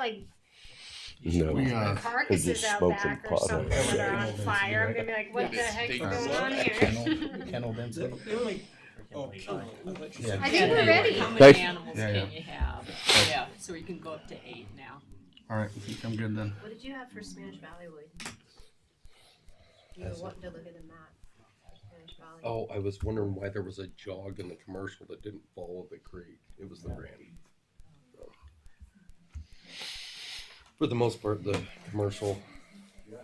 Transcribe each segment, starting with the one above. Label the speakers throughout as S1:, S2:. S1: like
S2: No.
S3: We, uh,
S1: carcasses
S2: just
S1: out
S2: smoke
S1: back
S2: some
S1: or
S2: pot.
S1: something
S4: Yeah,
S1: that are
S4: yeah.
S1: on fire, I'm gonna be like, what the
S4: Yeah.
S1: heck's
S4: They-
S1: going
S4: they-
S1: on here?
S4: Kennel- Kenneled insect.
S5: They're like, oh, kennel, electric.
S1: I think we're ready.
S6: How
S2: Guys-
S6: many animals
S3: Yeah, yeah.
S6: can you have? Yeah, so we can go up to eight now.
S3: All right, I think I'm good then.
S7: What did you have for Spanish Valley Wood? You were
S4: Mm. That's it.
S7: wanting to look at the map. Spanish Valley.
S8: Oh, I was wondering why there was a jog in the commercial that didn't follow the creek. It was the brand. For the most part, the commercial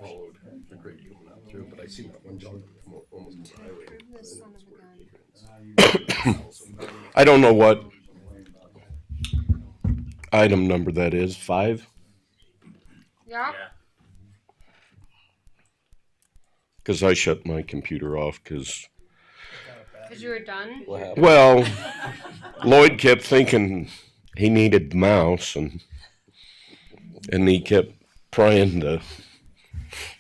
S8: followed the creek going out through, but I seen that one jog that come o- almost to the highway.
S1: Prove this son of a gun.
S2: I don't know what item number that is. Five?
S1: Yeah,
S2: Because I shut my computer off because,
S1: cause you were done.
S8: What happened?
S2: well, Lloyd kept thinking he needed the mouse and and he kept trying to.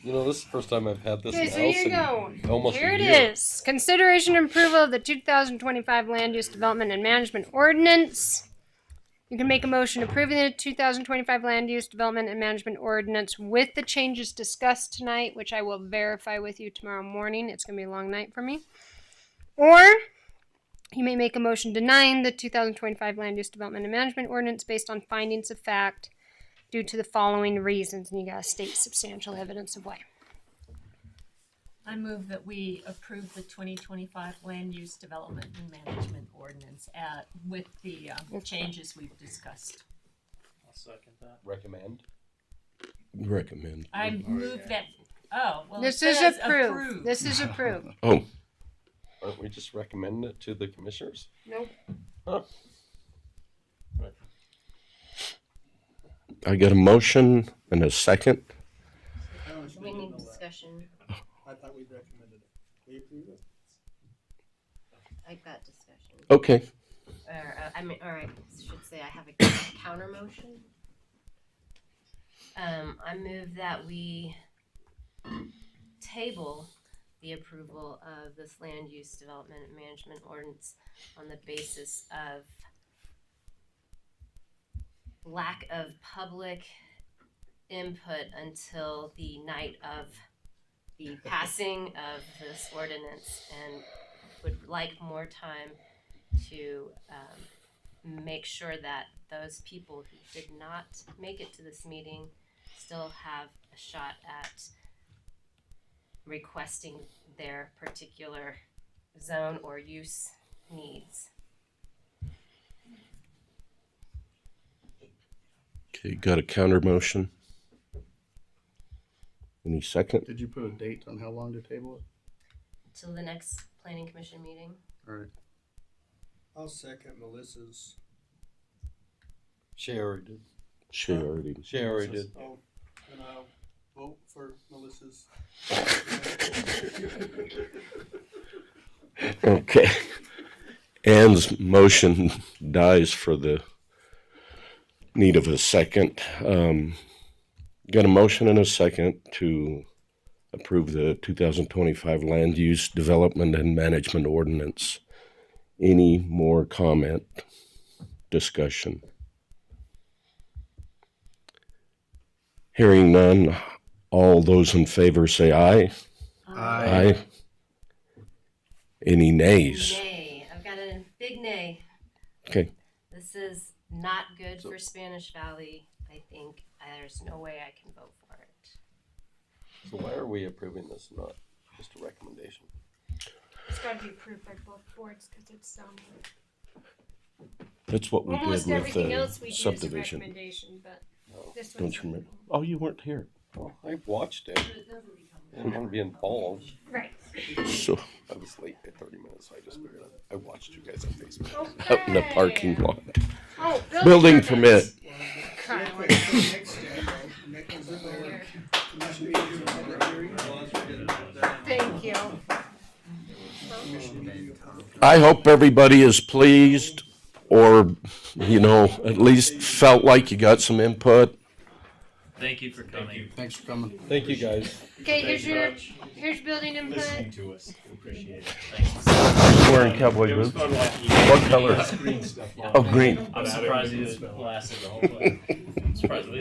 S8: You know, this is the first time I've had this
S1: Okay,
S8: in
S1: so here you
S8: house
S1: go.
S8: in almost a
S1: Here it
S8: year.
S1: is. Consideration and approval of the two thousand twenty-five land use development and management ordinance. You can make a motion approving the two thousand twenty-five land use development and management ordinance with the changes discussed tonight, which I will verify with you tomorrow morning. It's gonna be a long night for me. Or you may make a motion denying the two thousand twenty-five land use development and management ordinance based on findings of fact due to the following reasons, and you gotta state substantial evidence of why.
S6: I move that we approve the twenty twenty-five land use development and management ordinance at, with the, um, changes we've discussed.
S5: I'll second that.
S8: Recommend.
S2: Recommend.
S6: I move that, oh, well, it
S1: This is
S6: says
S1: approved.
S6: approved.
S1: This is approved.
S2: Oh,
S8: Aren't we just recommending it to the commissioners?
S1: Nope.
S8: Huh.
S2: I got a motion and a second.
S7: We need discussion,
S5: I thought we recommended it. We approve it?
S7: like that discussion.
S2: Okay.
S7: Or, uh, I mean, or I should say I have a counter motion. Um, I move that we table the approval of this land use development and management ordinance on the basis of lack of public input until the night of the passing of this ordinance and would like more time to um, make sure that those people who did not make it to this meeting still have a shot at requesting their particular zone or use needs.
S2: Okay, got a counter motion. Any second?
S3: Did you put a date on how long to table
S7: Till the next planning commission meeting.
S3: it? All right.
S5: I'll second Melissa's.
S8: She already did.
S2: She already.
S8: She already did.
S5: Oh, and I'll vote for Melissa's.
S2: Okay. Ann's motion dies for the need of a second. Um, got a motion and a second to approve the 2025 land use development and management ordinance. Any more comment, discussion? Hearing none, all those in favor say aye. Aye. Any nays?
S7: Nay, I've got a big nay.
S2: Okay.
S7: This is not good for Spanish Valley. I think there's no way I can vote for it.
S8: So why are we approving this, not just a recommendation?
S1: It's gotta be approved by both boards, cause it's, um,
S2: That's what we
S1: almost
S2: did with
S1: everything
S2: the
S1: else we do is a
S2: subdivision.
S1: recommendation, but this
S2: Don't
S1: one's.
S2: you remember? Oh, you weren't here.
S8: Well, I watched it. I didn't want to be involved.
S1: Right.
S2: So,
S8: I was late by 30 minutes, so I just figured out. I watched you guys on Facebook.
S2: out in the parking
S1: Okay.
S2: lot.
S1: Oh,
S2: Building permit.
S1: Crap. Thank you.
S2: I hope everybody is pleased or, you know, at least felt like you got some input.
S9: Thank you for coming.
S3: Thanks for coming.
S8: Thank you guys.
S1: Okay, here's your, here's building input.
S5: to us, appreciate it.
S2: Wearing cowboy
S9: It was
S2: boots.
S9: fun watching you.
S2: What color?
S9: Green stuff.
S2: Oh, green.
S9: I'm surprised it lasted the whole play. I'm surprised it